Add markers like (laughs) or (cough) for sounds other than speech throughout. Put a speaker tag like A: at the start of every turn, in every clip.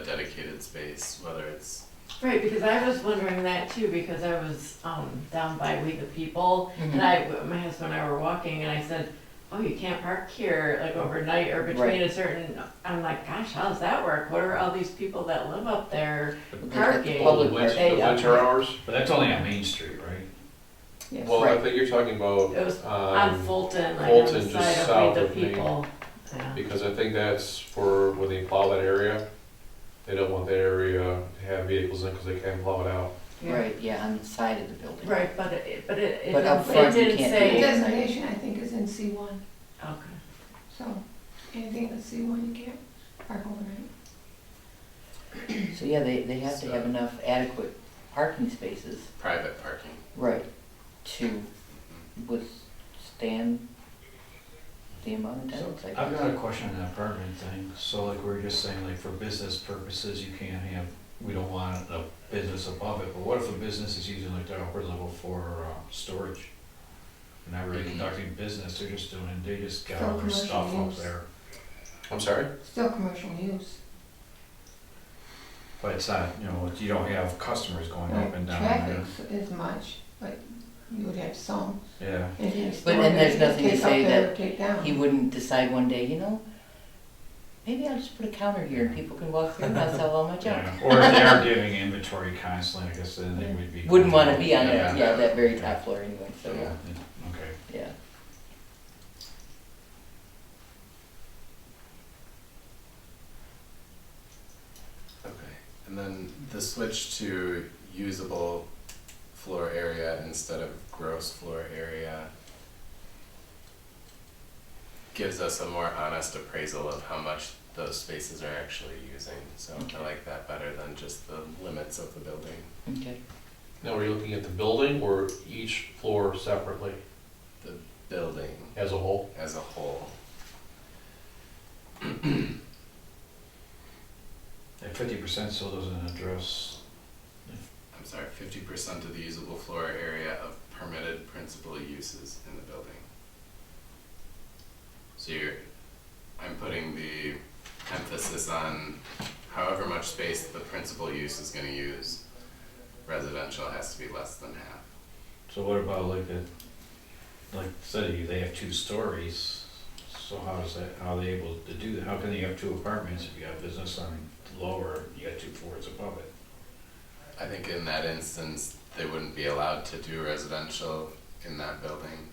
A: open space, whether it's,
B: Right, because I was wondering that too, because I was um, down by We the People,
C: Mm-hmm.
B: and I,
D: Mm-hmm.
B: my husband and I were walking, and I said, "Oh, you can't park here like overnight or between
D: Right.
B: a certain." I'm like, "Gosh, how's that work? What are all these people that live up there parking?"
D: Public
E: Which-
D: park.
B: Hey,
E: The
B: yeah.
E: winter hours?
C: But that's only on Main Street, right?
D: Yes,
E: Well, I
D: right.
E: think you're talking about,
B: It was on
E: um,
B: Fulton, like on
E: Fulton,
B: the
E: just
B: side
E: south
B: of We the
E: of Main.
B: People. Yeah.
E: because I think that's for when they plow that area. They don't want that area to have vehicles in because they can plow it out.
D: Right, yeah, on the side of the building.
B: Right, but it, but it, it,
D: But up
B: didn't- it
D: front you
B: didn't
D: can't do
B: say.
D: it.
F: Designation, I think, is in C one,
B: Okay.
F: so anything that's C one, you can't park overnight.
D: So, yeah, they, they have to have
A: So-
D: enough adequate parking spaces,
A: private parking.
D: right, to withstand the amount of tenants, I guess.
C: I've got a question on the apartment thing, so like we were just saying, like for business purposes, you can't have, we don't want a business above it, but what if a business is using like their upper level for, uh, storage? They're Not really conducting business, they're just doing, they just got all their
F: Still
C: stuff
F: Mm-hmm. commercial
C: up
F: use.
C: there,
E: I'm sorry?
F: Still commercial use.
C: but it's not, you know, you don't have customers going up and down
F: Traffic
C: there.
F: is much, but you would have some.
C: Yeah,
F: If you store
D: then
F: it,
D: there's
F: you can
D: nothing to
F: take up
D: say
F: there or
D: that
F: Take down.
D: He wouldn't decide one day, you know, maybe I'll just put a counter here and people can walk through and I'll sell
C: (laughs)
D: all my junk.
C: yeah, or if they
F: (laughs)
C: are giving inventory constantly, I guess then they would be.
D: Wouldn't wanna be on
C: Yeah.
D: that, yeah, that very top floor anyway, so,
C: Yeah,
D: yeah,
C: okay.
D: yeah.
A: Okay, and then the switch to usable floor area instead of gross floor area gives us a more honest appraisal of how much those spaces are actually using. So
D: Okay.
A: I like that better than just the limits of the building.
D: Okay,
E: Now, are you looking at the building or each floor separately
A: Building
E: as a whole?
A: as a whole.
C: That fifty percent still doesn't address,
A: I'm sorry, fifty percent of the usable floor area of permitted principal uses in the building. So you're, I'm putting the emphasis on however much space the principal use is gonna use. Residential has to be less than half.
C: so what about like the, like city, they have two stories, so how is that, how are they able to do that? How can they have two apartments if you have business on lower, you got two floors above it?
A: I think in that instance, they wouldn't be allowed to do residential in that building.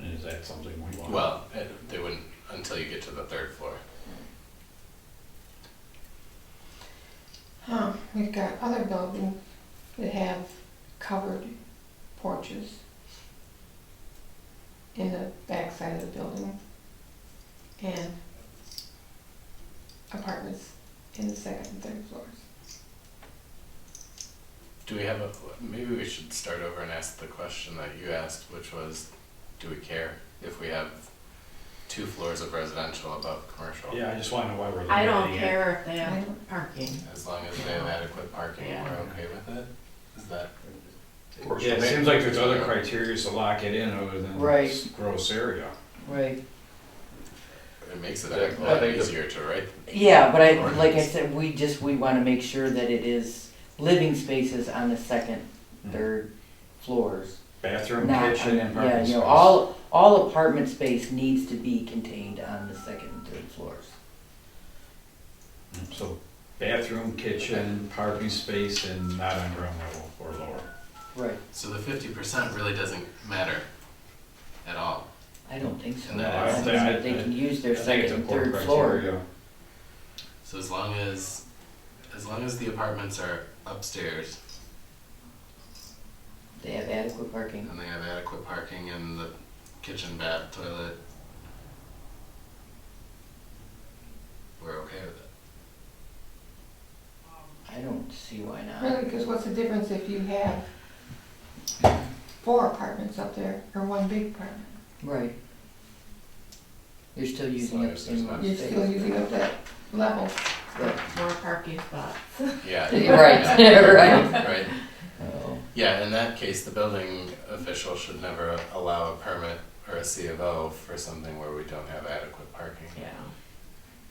C: And is that something we want?
A: Well, it- they wouldn't until you get to the third floor.
F: Huh, we've got other buildings that have covered porches in the backside of the building and apartments in the second and third floors.
A: Do we have a, maybe we should start over and ask the question that you asked, which was, do we care if we have two floors of residential above commercial?
C: Yeah, I just wanna know why we're.
B: I don't
C: limiting it.
B: care if they
F: I
B: have
F: don't-
B: parking.
A: As long as they have adequate parking,
B: Yeah.
A: we're okay with it? Is that?
C: Yeah, it seems like there's other criteria to lock it in other than
D: Right.
C: s- gross area.
D: right.
A: It makes it
E: Yeah,
A: a
E: I
A: lot
E: think the-
A: easier to write.
D: Yeah, but I,
A: Or-
D: like I said, we just, we wanna make sure that it is living spaces on the second, third floors.
C: Bathroom,
D: Not-
C: Mm-hmm. kitchen, and
D: Yeah,
C: parking
D: you know,
C: space.
D: all, all apartment space needs to be contained on the second and third floors.
C: So bathroom, kitchen, parking space, and not on ground level or lower.
D: Right.
A: So the fifty percent really doesn't matter at all.
D: I don't think so.
A: No,
C: I don't
D: think
C: think-
D: that They can use
C: I
D: their
C: think
D: second
C: it's
D: and
C: important
D: third floor.
C: criteria.
A: So as long as, as long as the apartments are upstairs
D: They have adequate parking.
A: and they have adequate parking and the kitchen, bath, toilet, we're okay with it.
D: I don't see why not.
F: Really, because what's the difference if you have four apartments up there or one big apartment?
D: Right. You're still using
A: long
D: up
A: as
D: the
A: there's
D: amount
F: You're
D: of
F: still
D: space. (laughs)
F: using up that level.
D: Right,
B: More parking spots.
A: (laughs) Yeah.
D: Right, (laughs)
A: Yeah.
D: right.
A: (laughs) Right.
D: Oh,
A: Yeah, in that case, the building official should never allow a permit or a C of O for something where we don't have adequate parking.
B: Yeah.